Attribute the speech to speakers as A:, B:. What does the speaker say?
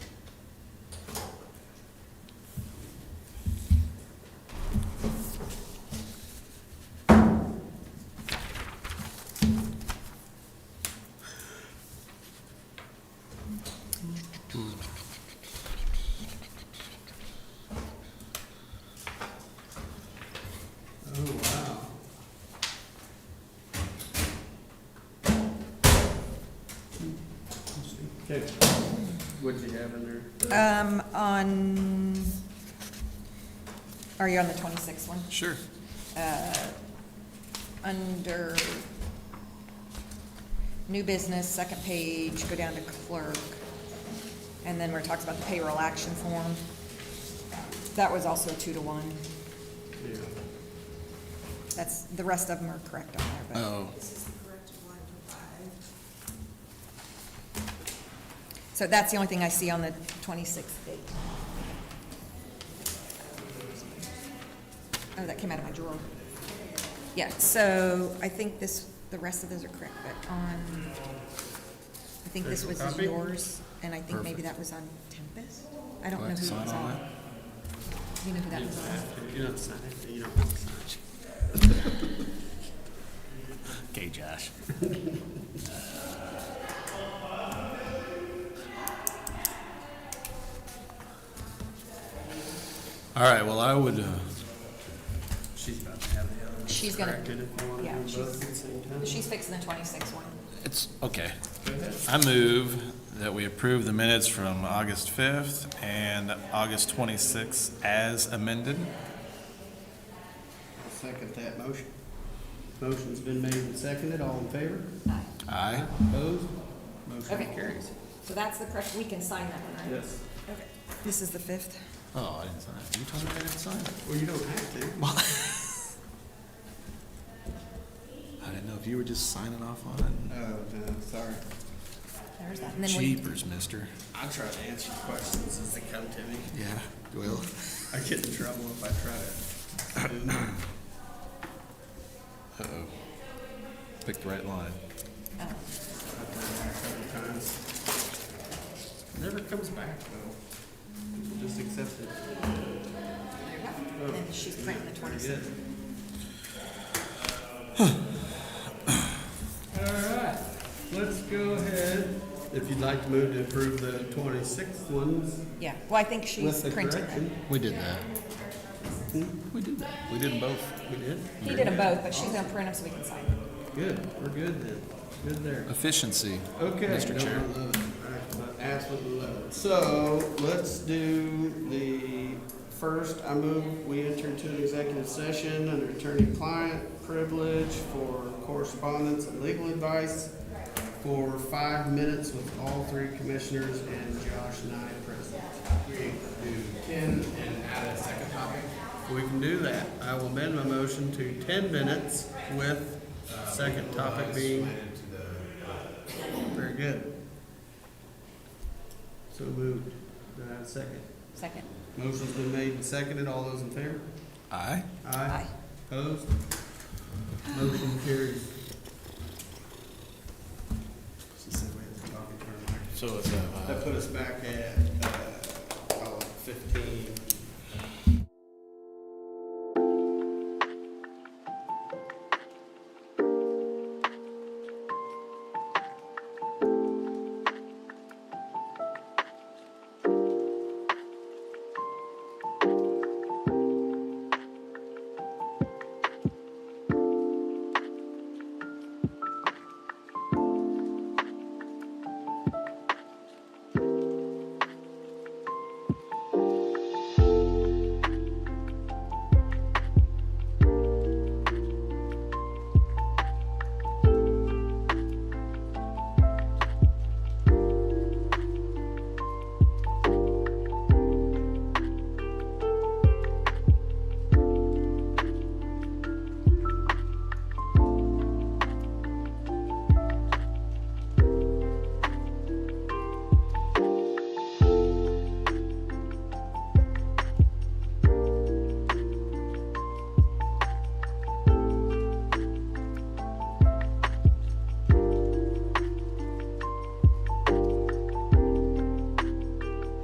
A: Oh, Okay, what'd you have in there?
B: Um, on, are you on the twenty-sixth one? Uh,
C: Sure.
B: Under new business, second page, go down to clerk. And then where it talks about the payroll action form. That was also a two to one.
A: Yeah.
B: That's, the rest of them are correct on there, but.
C: Oh,
D: This is the correct one for five.
B: So that's the only thing I see on the 26th date. Oh, that came out of my drawer. Yeah, so I think this, the rest of those are correct, but on, I think this was
A: There's your copy?
B: yours, and I think maybe that was on Tempest? I don't
C: Do I
B: know who
C: have
B: it
C: to
B: was
C: sign all
B: on. Do you know who that
A: You
B: was
A: don't
B: on?
A: have to, you don't sign it, you don't have to sign it.
C: okay, Josh. Uh, All right, well, I would, uh,
A: She's about to have the other. ones
B: She's gonna-
A: corrected if you wanna
B: yeah,
A: do both at the
B: she's-
A: same time.
B: She's fixing the 26th one.
C: it's, okay.
A: Go ahead.
C: I move that we approve the minutes from August 5th and August 26th as amended.
A: Second that motion. Motion's been made and seconded, all in favor?
C: Aye.
A: Opposed? Motion
B: Okay.
A: carries.
B: So that's the correct, we can sign that one, right?
A: Yes.
B: Okay. This is the 5th?
C: Oh, I didn't sign it. You told me I didn't sign it.
A: Well, you don't have to.
C: I didn't know if you were just signing off on
A: Oh, no, sorry.
B: There's that. And
C: it.
B: then we,
C: Jeepers, mister.
A: I try to answer questions as they come to me.
C: Yeah, well.
A: I get in trouble if I try to.
C: Uh-oh. Picked the right line.
B: oh.
A: I've done that a couple times. Never comes back though. People just accept it.
B: There you go. And then she's printing the
A: Pretty
B: 26th.
A: good. All right, let's go ahead. If you'd like to move to approve the twenty-sixth ones
B: Yeah, well, I think she's
A: with the
B: printed
A: correction.
B: them.
C: We did that. We did that. We did them both.
A: We did?
B: He did them both, but she's gonna print them so we can sign them.
A: Good, we're good then. Good there.
C: Efficiency.
A: Okay.
C: Mr. Chair.
A: Don't love it. I Absolutely love it. So let's do the first, I move we enter into an executive session under attorney-client privilege for correspondence and legal advice for five minutes with all three commissioners and Josh and I present. We do ten and add a second topic? We can do that. I will amend my motion to ten minutes with second topic being very good. So moved. Do I have a second?
B: Second.
A: Motion's been made and seconded. All those in favor?
C: Aye.
B: Aye.
A: Opposed? Motion carried. She said we had to talk in turn.
C: So it's, uh,
A: That put us back at uh,